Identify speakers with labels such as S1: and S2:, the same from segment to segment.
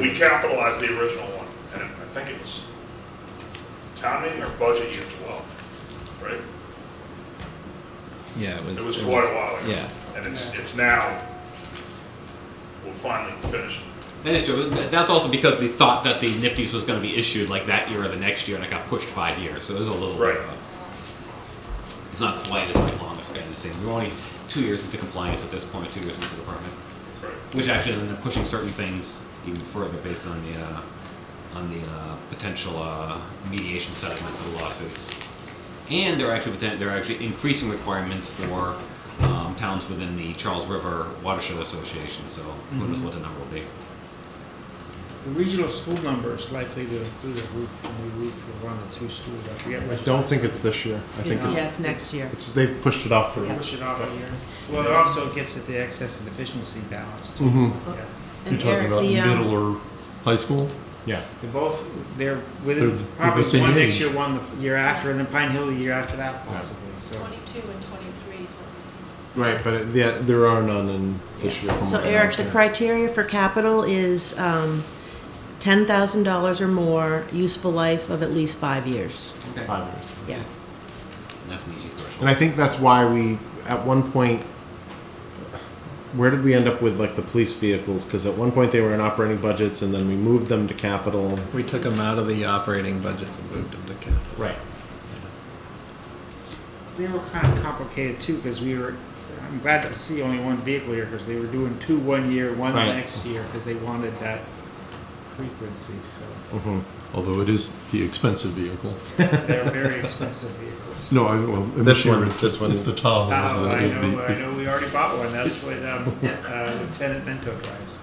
S1: we capitalized the original one, and I think it was town meeting or budget year twelve, right?
S2: Yeah, it was.
S1: It was quite a while ago.
S2: Yeah.
S1: And it's, it's now, we're finally finishing.
S3: That is true. but That's also because we thought that the Nifty's was going to be issued like that year or the next year, and it got pushed five years. So it was a little
S1: Right.
S3: bit of a, It's not quite as like long a span as saying we're only two years into compliance at this point, two years into the permit,
S1: Right.
S3: which actually ended up pushing certain things even further based on the uh, on the uh, potential uh, mediation settlement for the lawsuits. And they're actually poten- they're actually increasing requirements for um, towns within the Charles River Watershed Association. So who knows what the number will be.
S4: The regional school number is likely to do the roof, the new roof will run the two schools, I forget
S5: I
S4: which.
S5: don't think it's this year. I think
S6: Yeah,
S5: it's,
S6: it's next year.
S5: it's they've pushed it off for.
S4: Push it off a year. Well, it also gets at the excess and deficiency balance too.
S5: Mm-hmm.
S4: Yeah.
S6: And Eric, the, um,
S7: or high school?
S5: Yeah.
S4: They're both, they're
S7: They're
S4: within,
S7: the- they're the
S4: probably
S7: same
S4: one next
S7: age.
S4: year, one the f- year after, and then Pine Hill the year after that possibly, so.
S8: 22 and 23 is what was in
S5: Right, but it, yeah, there are none in this year. From
S6: So
S5: what I
S6: Eric, the
S5: understand.
S6: criteria for capital is um, $10,000 or more, useful life of at least five years.
S3: Okay.
S5: Five years.
S6: Yeah.
S3: That's an easy threshold.
S5: And I think that's why we, at one point, where did we end up with like the police vehicles? Because at one point they were in operating budgets, and then we moved them to capital.
S2: We took them out of the operating budgets and moved them to capital.
S5: Right.
S4: They were kind of complicated too, because we were, I'm glad to see only one vehicle here, because they were doing two one year, one the
S5: Right.
S4: next year, because they wanted that frequency, so.
S5: hmm
S7: Although it is the expensive vehicle.
S4: They're very expensive vehicles.
S7: No, I, well, in
S5: This
S7: year
S5: one,
S7: it's
S5: this
S7: the,
S5: one.
S7: It's the Tahoe.
S4: Tahoe, Oh, I
S7: Oh, is the,
S4: know, I
S7: is the,
S4: know we already bought one, that's what um, uh, Lieutenant Mento drives.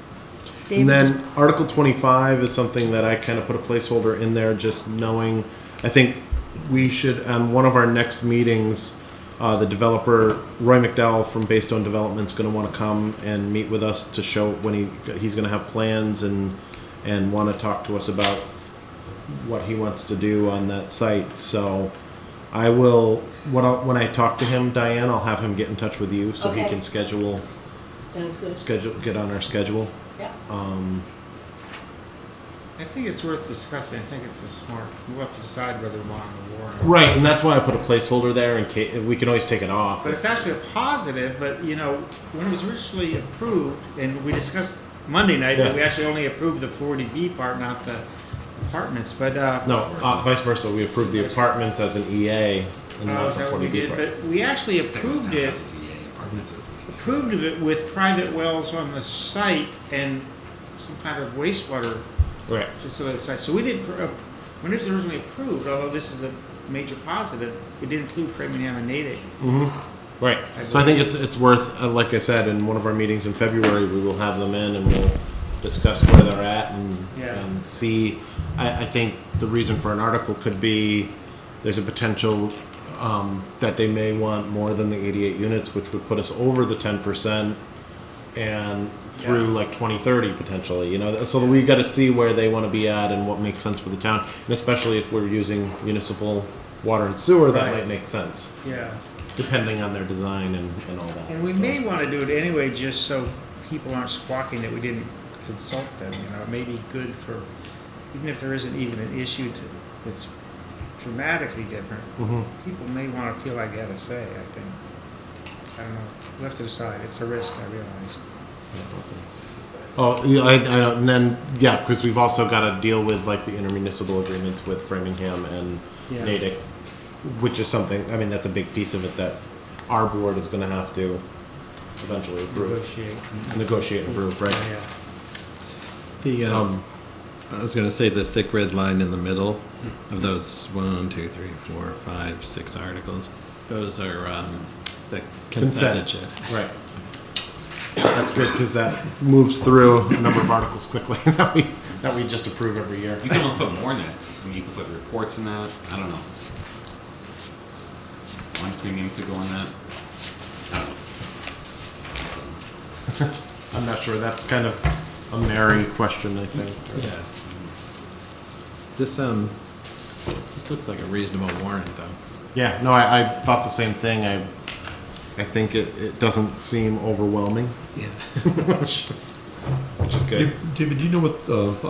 S6: David,
S5: And then Article 25 is something that I kind of put a placeholder in there, just knowing, I think we should, on one of our next meetings, uh, the developer, Roy McDowell from Baystone Development's gonna wanna come and meet with us to show when he, he's gonna have plans and, and wanna talk to us about what he wants to do on that site, so I will, when I, when I talk to him, Diane, I'll have him get in touch with you, so he
S8: Okay.
S5: can schedule,
S8: Sounds good.
S5: schedule, get on our schedule.
S8: Yeah.
S5: Um,
S4: I think it's worth discussing, I think it's a smart, we'll have to decide whether we want the warrant.
S5: Right, and that's why I put a placeholder there in case we can always take it off.
S4: But it's actually a positive, but you know, when it was originally approved, and we discussed Monday night, that we
S5: Yeah.
S4: actually only approved the forty B part, not the apartments, but, uh.
S5: No, uh, vice versa. We approved the apartments as an EA. And
S4: uh,
S5: not
S4: is
S5: the
S4: that what we
S5: 40B
S4: did?
S5: part.
S4: But we actually
S3: I think it was
S4: approved it
S3: townhouses, EA apartments. if we-
S4: approved of it with private wells on the site and some kind of wastewater
S5: Right.
S4: facility on the site. So we did, pr- uh, when it was originally approved, although this is a major positive, it did include Framingham and Natick.
S5: Right. So I think it's it's worth, uh, like I said, in one of our meetings in February, we will have them in and we'll discuss where they're at and,
S4: Yeah.
S5: and see. I, I think the reason for an article could be there's a potential um, that they may want more than the 88 units, which would put us over the 10% and through
S4: Yeah.
S5: like 2030 potentially you know so we got to see where they want to be at and what makes sense for the town and especially if we're using municipal water and sewer that
S4: Right.
S5: might make sense
S4: Yeah.
S5: depending on their design and, and all that.
S4: And we
S5: so.
S4: may want to do it anyway, just so people aren't squawking that we didn't consult them, you know, it may be good for, even if there isn't even an issue to- that's dramatically different,
S5: Mhm.
S4: people may want to feel like they had a say, I think. I don't know, we have to decide, it's a risk, I realize.
S5: Oh, yeah, I, I, and then yeah, because we've also got to deal with like the intermunicipal agreements with Framingham and
S4: Yeah.
S5: Natick, which is something. I mean, that's a big piece of it that our board is going to have to eventually approve,
S4: Negotiate.
S5: negotiate, and approve, right?
S4: Yeah.
S2: The, um,
S5: Um,
S2: I was gonna say the thick red line in the middle of those one, two, three, four, five, six articles. Those are, um, the consent
S5: Consent.
S2: agenda.
S5: right. That's good because that moves through a number of articles quickly that we that we just approve every year.
S3: You can almost put more in that. I mean, you could put reports in that. I don't know. One premium could go in that. I don't know.
S5: I'm not sure. That's kind of a Mary question, I think.
S2: Yeah. This, um, this looks like a reasonable warrant though.
S5: Yeah, no, I, I thought the same thing. I, I think it, it doesn't seem overwhelming,
S2: Yeah.
S5: which, which is good.
S7: David, do you know what uh,